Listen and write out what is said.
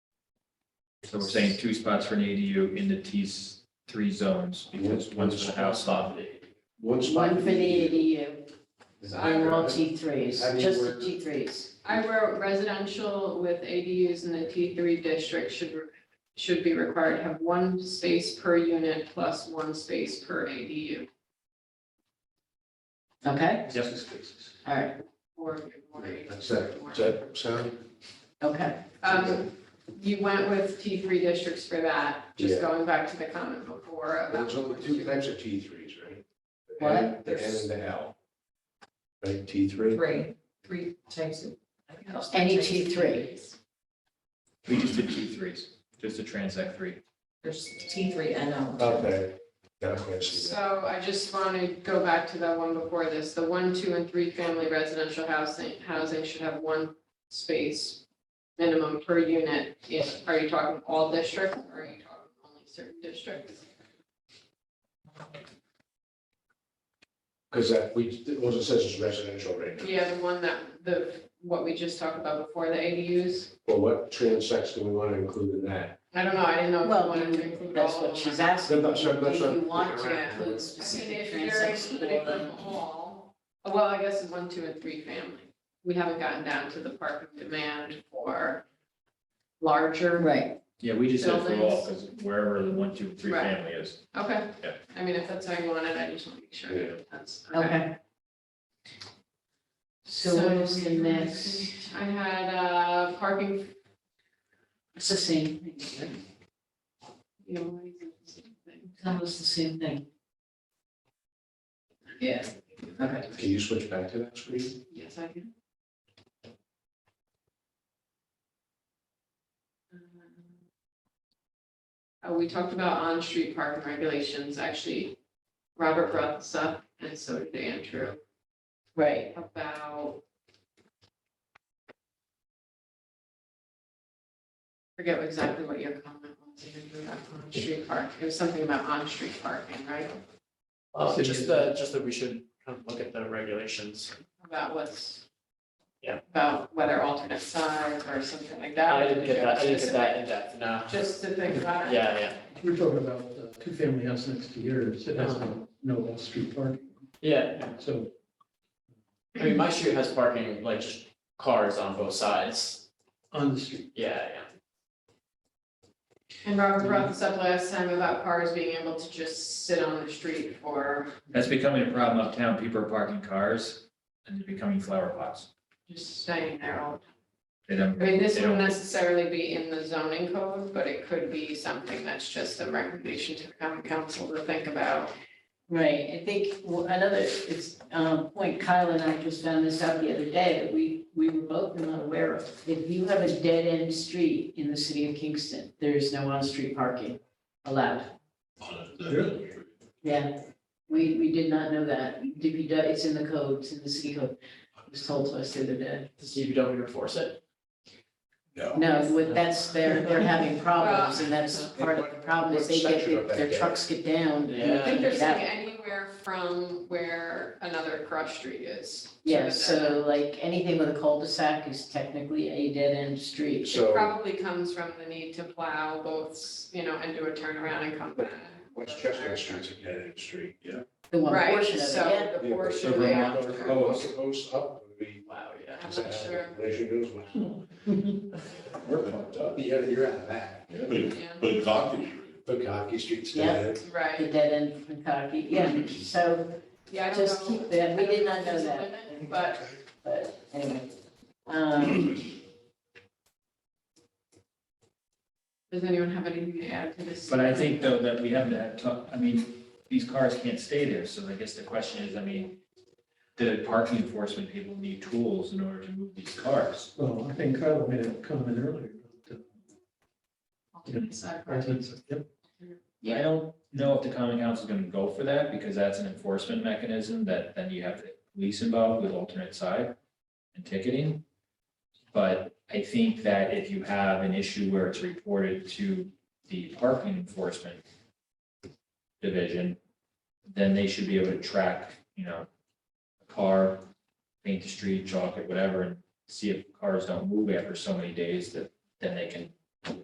So we're saying two spots for an ADU in the T three zones, because one's for the house lot. One spot. One for the E ADU, Is that and all correct? T threes, I mean, just the we're- T threes. I wrote residential with ADUs in the T three district should, should be required to have one space per unit plus one space per ADU Okay, Yep. all right, or. more. That's that, is that sound? okay. Um, you went with T three districts for that, Yeah. just going back to the comment before There's about. only two types of T threes, right? The What? N- The N and the L. Right, T three? Three, three types of. I think that's- Any T three, We just did T threes, just a transact three. There's T three and O. Okay, got a question. So I just want to go back to that one before this, the one, two, and three family residential housing, housing should have one space minimum per unit. Yes, are you talking all districts or are you talking only certain districts? Because that, we, it was, it says it's residential right now. Yeah, the one that, the, what we just talked about before, the ADUs. Well, what transects do we want to include in that? I don't know, I didn't know if you well, wanted to you- include all that's of them. what she's or not. asking, That's not- that's if you not- want to Yeah. include I mean, specific if you're transects including them or- all, well, I guess it's one, two, and three family. We haven't gotten down to the parking demand for larger, Right, Yeah, we just said for all, because Buildings. wherever the one, two, and three Right. family is. okay. Yeah. I mean, if that's how you want it, I just want to make sure Yeah. that that's. okay. So what is the So- next? I had, uh, parking, It's the same thing, you know, what is it? it's almost the same thing. Yeah, Okay. Can you switch back to that screen? yes, I can. Uh, we talked about on-street parking regulations, actually, Robert brought this up, and so did Andrew, Right, about. Forget exactly what your comment was, Andrew, about on-street park, it was something about on-street parking, right? Uh, just that, just that we should kind of look at the regulations. About what's. Yeah. About whether alternate sides or something like that. I didn't get that, I didn't get that in depth, no. Just to think about it. Yeah, yeah, We're talking about uh, two-family house next to yours, it has no, no off-street parking, yeah. so I mean, my street has parking, like just cars on both sides. on the street. Yeah, yeah. And Robert brought Mm-hmm. this up last time about cars being able to just sit on the street or That's becoming a problem uptown. People are parking cars and they're becoming flower pots. just staying there all. They don't, I mean, this they wouldn't don't, necessarily be in the zoning code, but it could be something that's just a recommendation to the common council to think about. right, I think w- another, it's, um, point Kyle and I just found this out the other day, that we, we were both not aware of. If you have a dead-end street in the city of Kingston, there is no on-street parking allowed. Yeah, we, we did not know that. DPW, it's in the code, it's in the city code. It was told to us the other day. Does DPW enforce it? No, what- that's, they're, they're having problems and that's part of the problem is they get, What section of that their gate? trucks get down. and Yeah. I think they're get out. saying anywhere from where another cross street is. Yeah, so like anything with a cul-de-sac is technically a dead-end street. It So probably comes from the need to plow both, you know, and do a turnaround and come back. Westchester Street's a dead end street. Yeah. The one Right, portion of it, yeah. so the portion so they Vermont have to or- Oh, what's the post up? would be- Wow, yeah. I'm not sure. Raise your nose. We're pumped up. You're, you're out of that. But, Yeah, but Cockney Street. Bukaki Street's Yeah. dead. The Right, dead end of Kentucky, yeah, so yeah, I don't know. just keep that, we did not I know don't if that, there's a limit, But but anyway. Um, does anyone have anything to add to this? but I think though that we haven't had, to- I mean, these cars can't stay there. So I guess the question is, I mean, the parking enforcement people need tools in order to move these cars. Well, I think Kyle made a comment earlier about Alternate side the residents, yep. I don't know if the common council is gonna go for that, because that's an enforcement mechanism that then you have the police involved with alternate side and ticketing. But I think that if you have an issue where it's reported to the parking enforcement division, then they should be able to track, you know, a car, paint the street, chalk it, whatever, and see if cars don't move after so many days that then they can